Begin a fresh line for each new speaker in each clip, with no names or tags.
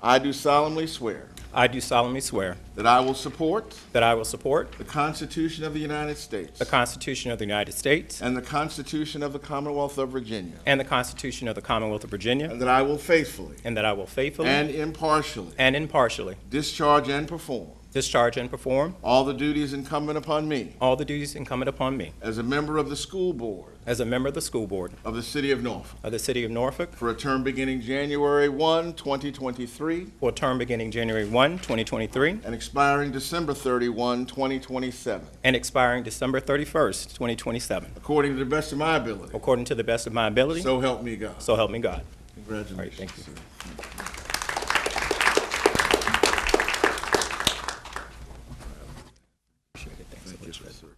I do solemnly swear
I do solemnly swear
that I will support
that I will support
the Constitution of the United States
the Constitution of the United States
and the Constitution of the Commonwealth of Virginia,
and the Constitution of the Commonwealth of Virginia,
and that I will faithfully
and that I will faithfully
and impartially
and impartially
discharge and perform
discharge and perform
all the duties incumbent upon me
all the duties incumbent upon me
as a member of the school board
as a member of the school board
of the City of Norfolk
of the City of Norfolk
for a term beginning January 1, 2023,
for a term beginning January 1, 2023,
and expiring December 31, 2027,
and expiring December 31st, 2027,
according to the best of my ability.
according to the best of my ability,
So help me God.
so help me God.
Congratulations.
All right, thank you.
sir.
Appreciate it. Thanks so much, Fred.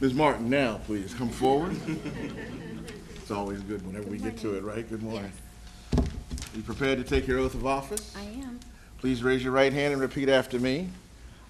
Ms. Martin, now, please, come forward. It's always good whenever we get to it, right? Good morning. You prepared to take your oath of office?
I am.
Please raise your right hand and repeat after me.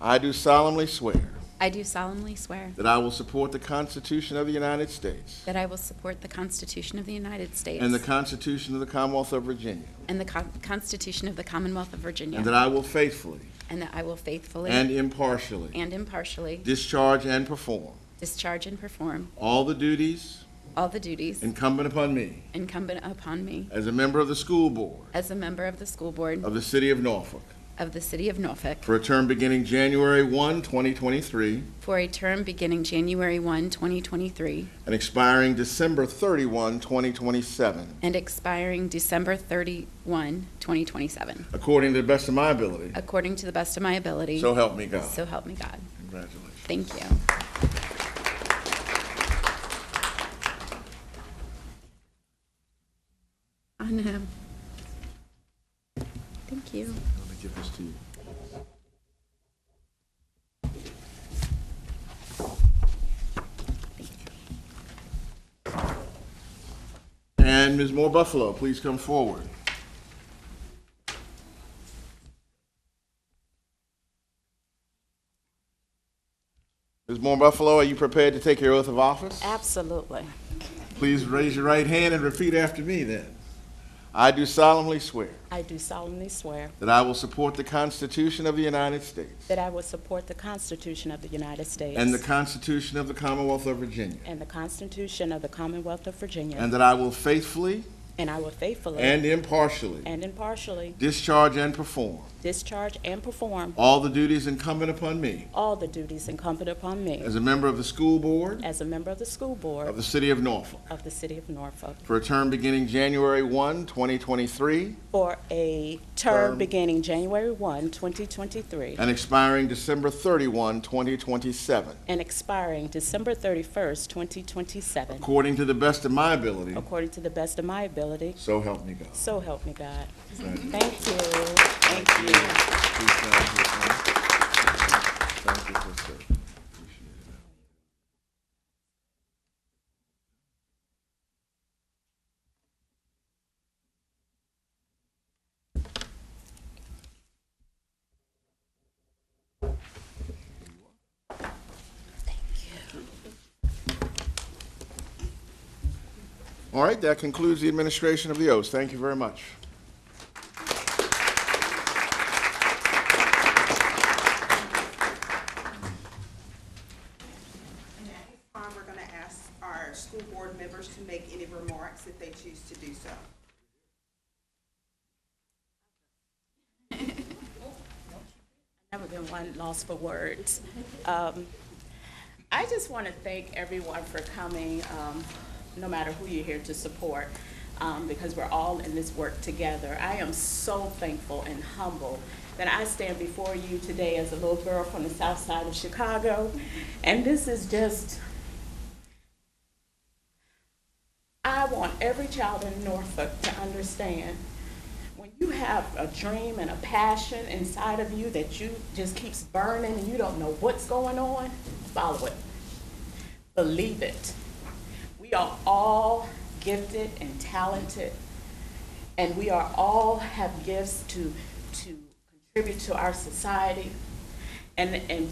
I do solemnly swear
I do solemnly swear
that I will support the Constitution of the United States
that I will support the Constitution of the United States
and the Constitution of the Commonwealth of Virginia,
and the Con- Constitution of the Commonwealth of Virginia,
and that I will faithfully
and that I will faithfully
and impartially
and impartially
discharge and perform
discharge and perform
all the duties
all the duties
incumbent upon me
incumbent upon me
as a member of the school board
as a member of the school board
of the City of Norfolk
of the City of Norfolk
for a term beginning January 1, 2023,
for a term beginning January 1, 2023,
and expiring December 31, 2027,
and expiring December 31, 2027,
according to the best of my ability.
according to the best of my ability.
So help me God.
So help me God.
Congratulations.
Thank you. I know. Thank you.
Let me give this to you. And Ms. Moore Buffalo, please come forward. Ms. Moore Buffalo, are you prepared to take your oath of office?
Absolutely.
Please raise your right hand and repeat after me then. I do solemnly swear
I do solemnly swear
that I will support the Constitution of the United States
that I will support the Constitution of the United States
And the Constitution of the Commonwealth of Virginia.
and the Constitution of the Commonwealth of Virginia,
And that I will faithfully
and I will faithfully
and impartially
and impartially
discharge and perform
discharge and perform
all the duties incumbent upon me
all the duties incumbent upon me
as a member of the school board
as a member of the school
of
board
the City of Norfolk
of the City of Norfolk
for a term beginning January 1, 2023,
for a
Term.
term beginning January 1, 2023,
and expiring December 31, 2027,
and expiring December 31st, 2027,
according to the best of my ability.
according to the best of my ability.
So help me God.
So help me God.
Right.
Thank you. Thank you.
Please sign here, sir. Thank you, good sir. Appreciate it. All right, that concludes the administration of the oath. Thank you very much.
And at this time, we're going to ask our school board members to make any remarks if they choose to do so.
Never been one lost for words. Um, I just want to thank everyone for coming, um, no matter who you're here to support, um, because we're all in this work together. I am so thankful and humble that I stand before you today as a little girl from the south side of Chicago. And this is just, I want every child in Norfolk to understand when you have a dream and a passion inside of you that you just keeps burning and you don't know what's going on, follow it. Believe it. We are all gifted and talented and we are all have gifts to to contribute to our society. And and